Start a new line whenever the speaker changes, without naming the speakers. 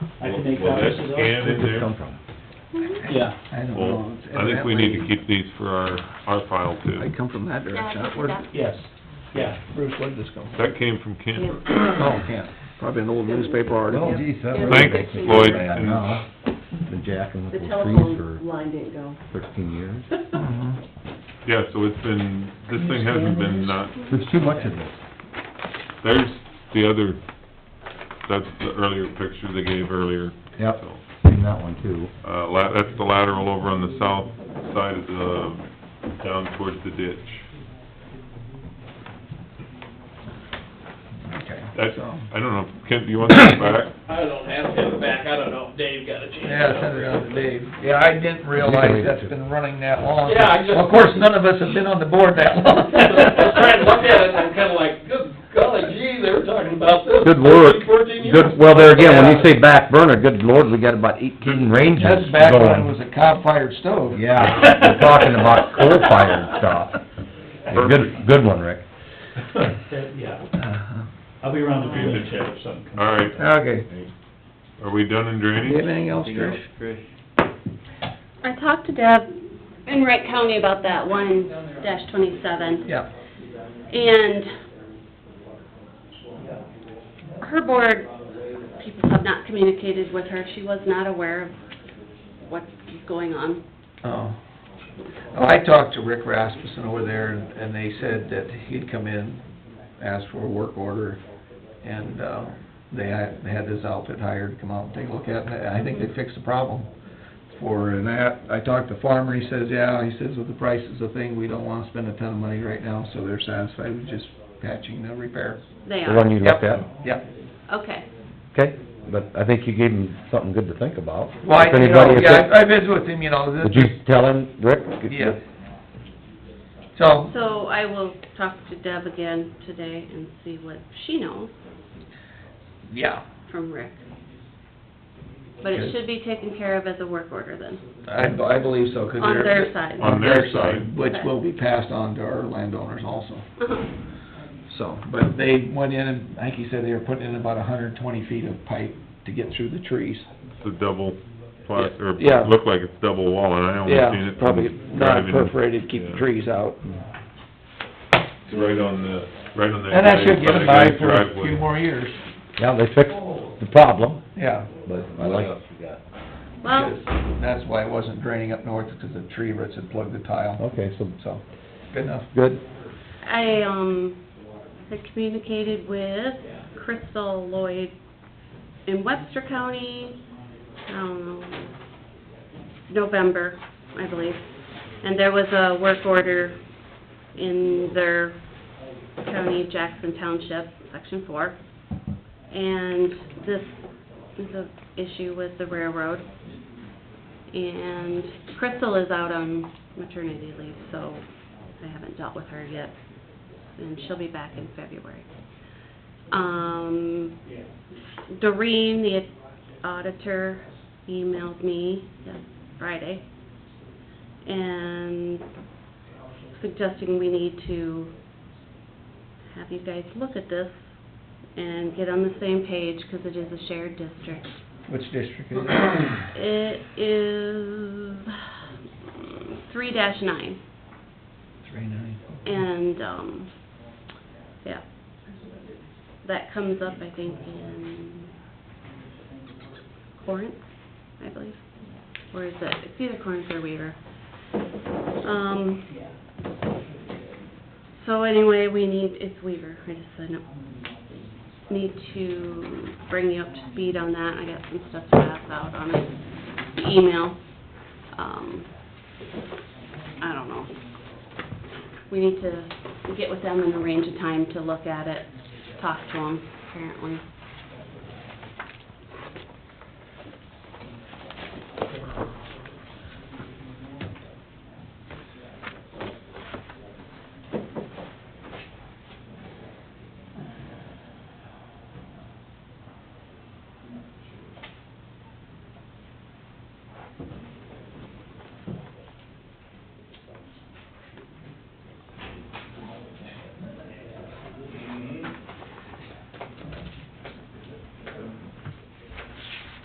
can make Mm-hmm.
Will that
copies of those.
scan in
Where'd this
there?
come from?
Yeah.
I don't
Well,
know. It's
I think we need to keep these for our, our file
I
too.
come from that direction. Where,
Yes, yeah.
Bruce, where'd this come from?
That came from Ken.
Oh, yeah, probably an old newspaper
Oh,
article.
geez, that
Yeah.
really
Thanks,
makes me
Lloyd.
feel bad now. Been jacking up
The
those trees
telephone
for
line didn't go.
thirteen years.
Mhm.
Yeah, so it's been, this thing hasn't been not,
There's too much of this.
there's the other, that's the earlier picture they gave earlier.
Yep,
So,
seen that one too.
Uh, la, that's the lateral over on the south side of the, down towards the ditch.
Okay.
That's,
so-
I don't know, Ken, do you want that back?
I don't have him back, I don't know if Dave got a chance.
Yeah, send it out to Dave. Yeah, I didn't realize that's been running that long.
Yeah, I just-
uh, Of course, none of us have been on the board that long.
I was trying to look at it, and I'm kinda like, good golly gee, they were talking about this.
Good work.
13, Fourteen years.
Good, well, there again, when you say back burner, good lord, we got about eighteen ranges
That's
going.
back when it was a cob-fired stove.
Yeah, we're talking about coal-fired stuff. Good, good one, Rick.
Yeah,
Uh-huh.
I'll be around the building shed if something comes.
All right,
Okay.
are we done in
Do you have
drainage?
anything else, Trish?
I talked to Deb in Wright County about that one dash twenty-seven.
Yeah.
And her board, people have not communicated with her. She was not aware of what's going on.
Oh. Oh, I talked to Rick Rasmussen over there, and and they said that he'd come in, ask for a work order, and, uh, they had, they had this outfit hired to come out and take a look at it, and I think they fixed the problem for that. I talked to Farmer, he says, yeah, he says, with the price is the thing, we don't wanna spend a ton of money right now, so they're satisfied with just patching the repair.
They
The one
are.
you looked at,
Yep.
Okay.
okay? But I think you gave him something good to think about.
Well, I,
If
you know,
anybody- if
yeah,
it-
I I visited with him, you know,
Did
this,
you tell him, Rick?
yeah. So,
So I will talk to Deb again today and see what she knows
yeah,
from Rick. But it
Okay.
should be taken care of as a work order then,
I, I believe so, 'cause
on
they're-
their side.
On their side.
Which will be passed on to our landowners also,
Uh-huh.
so. But they went in and, like you said, they were putting in about hundred and twenty feet of pipe to get through the trees.
It's a double plas, or
Yeah.
look like it's double wall, and I only seen
Yeah,
it from
probably
driving.
not perforated, keep the
Yeah.
trees out.
It's right on the, right on the.
And that should get them by for a
driveway.
few more years,
Yeah, they fixed
Oh.
the problem,
yeah.
but I like,
Well,
because That's why it wasn't draining up north, because the tree roots had plugged the tile,
okay, so,
so, Oh. good enough.
good.
I, um, had communicated with Crystal Lloyd in Webster County, um, November, I believe. And there was a work order in their county, Jackson Township, Section Four. And this is an issue with the railroad. And Crystal is out on maternity leave, so I haven't dealt with her yet, and she'll be back in February. Um, Doreen, the auditor, emailed me yes, Friday, and suggesting we need to have you guys look at this and get on the same page, because it is a shared district.
Which district is it?
It is three dash nine.
Three nine.
And, um, yeah, that comes up, I think, in Corinth, I believe, or is it, it's either Corinth or Weaver. Um, so anyway, we need, it's Weaver, I just said no. Need to bring you up to speed on that, I got some stuff to pass out on it, the email, um, I don't know, we need to get with them and arrange a time to look at it, talk to them, apparently.